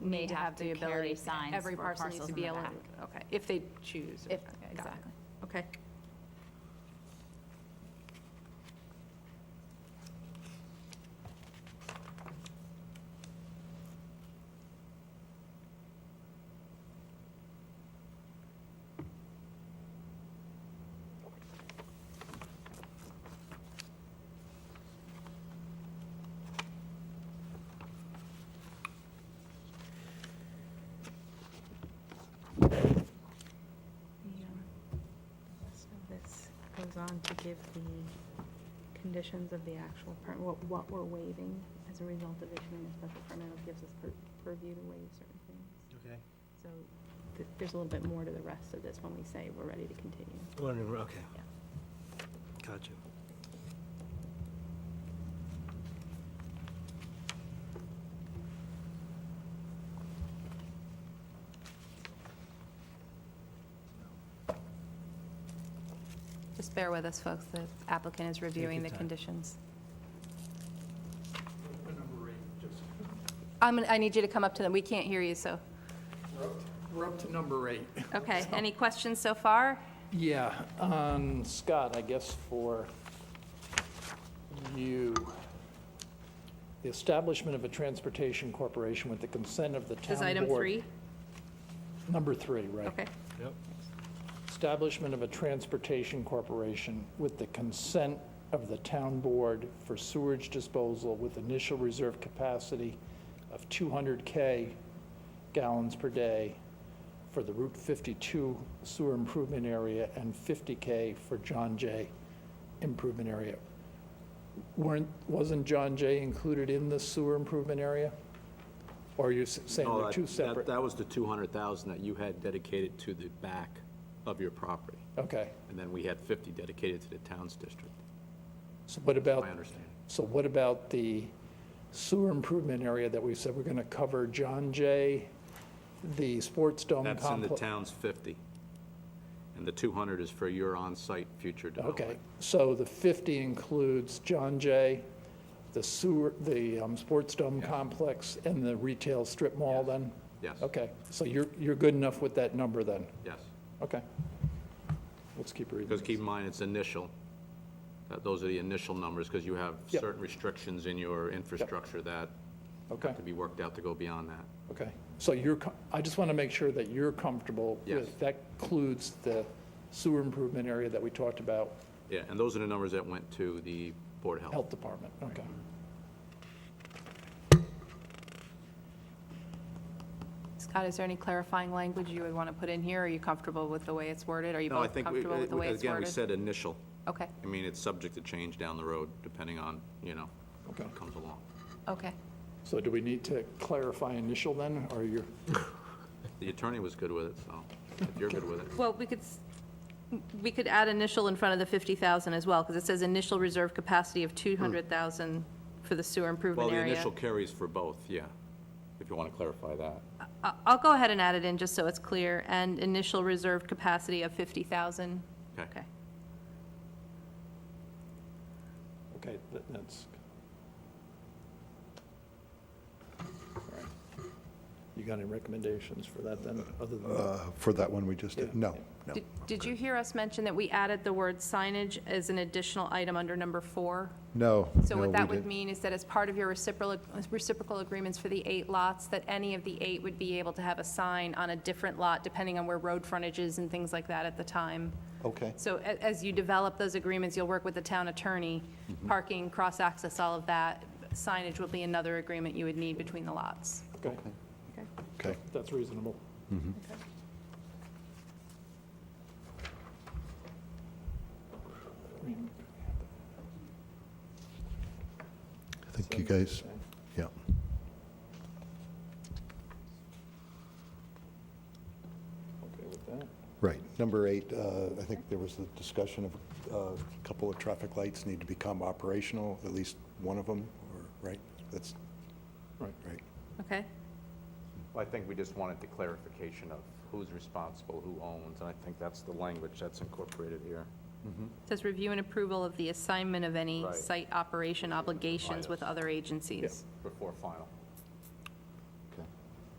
may have the ability carry- to sign Every parcel needs to be able, to. okay, if they choose. If, okay, got it. exactly. Okay. So this goes on to give the conditions of the actual permit, what, what we're waiving as a result of issuing a special permit, it gives us pur- purview to waive certain things. Okay. So th- there's a little bit more to the rest of this when we say we're ready to continue. Whatever, okay. Gotcha. Just bear with us, folks. The applicant is reviewing your the time. conditions. number eight, just, I'm, gonna- I need you to come up to them. We can't hear you, so. we're up- we're up to number eight. Okay, any questions so far? Yeah, um, Scott, I guess for you, the establishment of a transportation corporation with the consent of the town board. Is item three? Number three, right. Okay. Yep. Establishment of a transportation corporation with the consent of the town board for sewage disposal with initial reserve capacity of 200K gallons per day for the Route 52 sewer improvement area and 50K for John Jay improvement area. Weren't, wasn't John Jay included in the sewer improvement area? Or are you s- saying No, they're that- two that- separate? That was the 200,000 that you had dedicated to the back of your property, Okay. and then we had 50 dedicated to the town's district, So what about? my understanding. So what about the sewer improvement area that we said we're going to cover John Jay, the sports dome complex? That's in the town's 50, and the 200 is for your on-site future development. Okay, so the 50 includes John Jay, the sewer, the um, sports dome complex, and the retail strip mall then? Yes. Okay, so you're, you're good enough with that number then? Yes, Okay. Let's keep reading. because keep in mind, it's initial, that those are the initial numbers, because you have Yep. certain restrictions in your infrastructure that Okay, have to be worked out to go beyond that. okay. So you're, co- I just want to make sure that you're comfortable with. Yes. That includes the sewer improvement area that we talked about Yeah, and those are the numbers that went to the Board of Health. Health Department, okay. Scott, is there any clarifying language you would want to put in here? Are you comfortable with the way it's worded? Are you No, I both think, we- comfortable with the way it's again, we worded? said initial. Okay, I mean, it's subject to change down the road, depending on, you know, Okay. what comes along. okay. So do we need to clarify initial then, or you're, The attorney was good with it, so if you're good with it. Well, we could, s- we could add initial in front of the 50,000 as well, because it says initial reserve capacity of 200,000 for the sewer Well, improvement the area. initial carries for both, yeah, if you want to clarify that. I- I'll go ahead and add it in, just so it's clear, and initial reserved capacity of 50,000. Okay. okay, that- that's. all right. You got any recommendations for that then, other than, that? Uh, For that one we just did, no, no. Did- Did you hear us mention that we added the word signage as an additional item under number four? No, So no, we what that would didn't. mean is that as part of your reciprocal, reciprocal agreements for the eight lots, that any of the eight would be able to have a sign on a different lot, depending on where road frontage is and things like that at the time. Okay. So a- as you develop those agreements, you'll work with the town attorney, parking, cross-access, all of that. Signage would be another agreement you would need between the lots. okay, Okay, that's reasonable. I think you guys, yeah. Okay with that? Right. Number eight, uh, I think there was a discussion of uh, a couple of traffic lights need to become operational, at least one of them, or, right? That's, Right. right. Okay? I think we just wanted the clarification of who's responsible, who owns, and I think that's the language that's incorporated here. Says review and approval of the assignment of any Right. site operation obligations with other agencies. Before final.